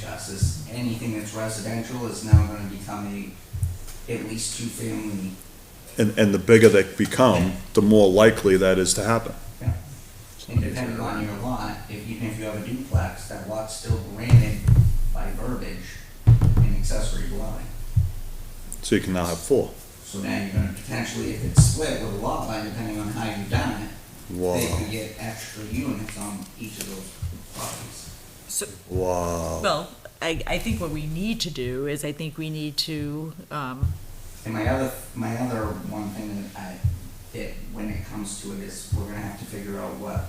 taxes, anything that's residential is now gonna become a, at least two-family. And, and the bigger they become, the more likely that is to happen. Yeah. And depending on your lot, if, even if you have a duplex, that lot's still granted by verbiage an accessory dwelling. So you can now have four. So now you're gonna potentially, if it's split with a lot line, depending on how you've done it, they Wow, could get extra units on each of those properties. So, wow. well, I, I think what we need to do is I think we need to, um, And my other, my other one thing that I, that when it comes to it is, we're gonna have to figure out what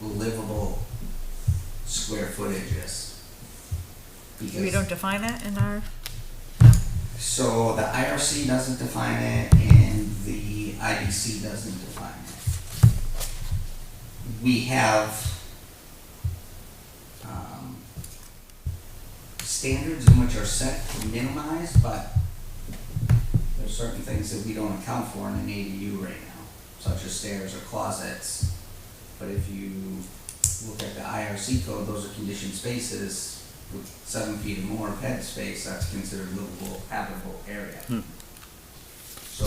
livable square footage is. we Because- don't define that in our, So the IRC doesn't define it and the IDC doesn't define it. We have um, standards in which are set to minimize, but there's certain things that we don't account for in an ADU right now, such as stairs or closets. But if you look at the IRC code, those are conditioned spaces with seven feet or more of head space, that's considered livable, habitable area. Hmm. So,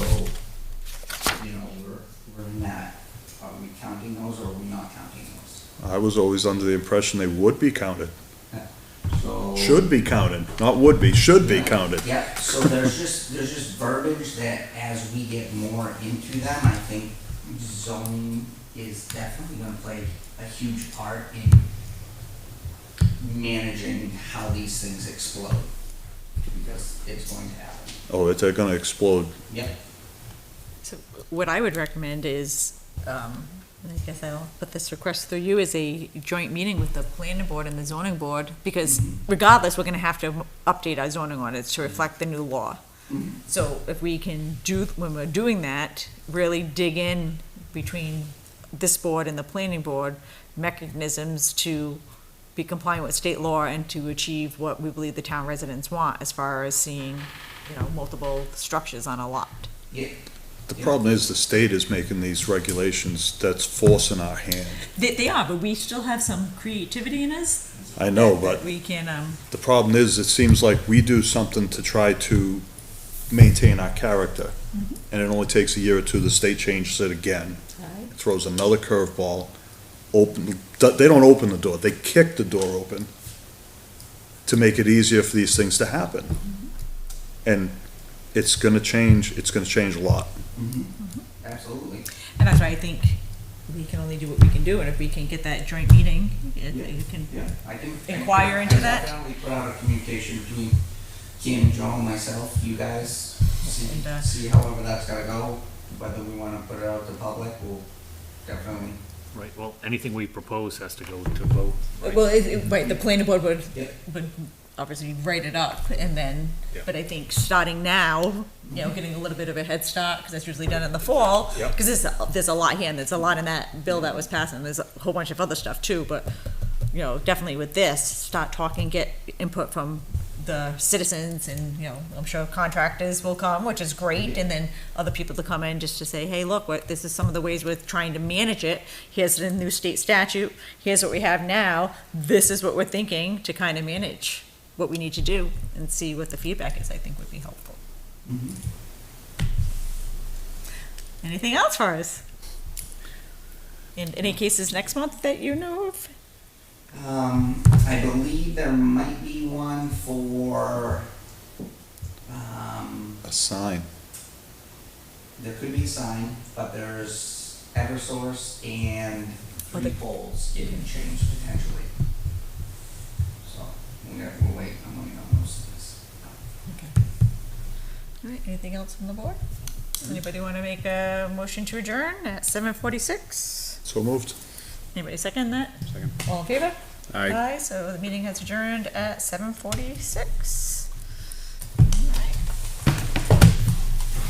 you know, we're, we're in that, are we counting those or are we not counting those? I was always under the impression they would be counted, So. should be counted, not would be, should be counted. Yep, so there's just, there's just verbiage that as we get more into them, I think zoning is definitely gonna play a huge part in managing how these things explode, because it's going to happen. Oh, it's- they're gonna explode. Yep. so what I would recommend is, um, and I guess I'll put this request through you, is a joint meeting with the planning board and the zoning board, because Mhm. regardless, we're gonna have to update our zoning ordinance to reflect the new law. Mhm. So if we can do, when we're doing that, really dig in between this board and the planning board, mechanisms to be compliant with state law and to achieve what we believe the town residents want as far as seeing, you know, multiple structures on a lot. Yeah, The problem is the state is making these regulations that's forcing our hand. They, they are, but we still have some creativity in us. I know, that- but that We can, um, The problem is, it seems like we do something to try to maintain our character, and it only takes a year or two, the state changes it again, throws another curveball, open, they don't open the door, they kick the door open to make it easier for these things to happen. And it's gonna change, it's gonna change a lot. Mm-hmm. absolutely. and that's why I think we can only do what we can do, and if we can get that joint meeting, it Yeah. it can Yeah, I can. I can- Inquire into I that? Definitely put out a communication between Kim, Joan, myself, you guys, see, And, uh, see however that's gotta go, whether we wanna put it out to public, we'll definitely. Right, well, anything we propose has to go to vote. right? Well, it, it, right, the planning board would, Yeah. would obviously write it up and then, Yeah. but I think starting now, you know, getting a little bit of a head start, because that's usually done in the fall. Yep. Because there's, there's a lot here, and there's a lot in that bill that was passed, and there's a whole bunch of other stuff too, but, you know, definitely with this, start talking, get input from the citizens and, you know, I'm sure contractors will come, which is great, and then other people to come in just to say, hey, look, what, this is some of the ways we're trying to manage it. Here's the new state statute, here's what we have now, this is what we're thinking to kind of manage what we need to do and see what the feedback is, I think would be helpful. Mhm. Mm-hmm. Anything else for us? And any cases next month that you know of? Um, I believe there might be one for, um, A sign, there could be a sign, but there's Eversource and Oh, three the- poles getting changed potentially. So, we're gonna, we'll wait, I'm gonna know most of this. Okay. All right, anything else from the board? Anybody want to make a motion to adjourn at seven forty-six? so moved. Anybody second that? Second. All in favor? Aye, so the meeting has adjourned at seven forty-six.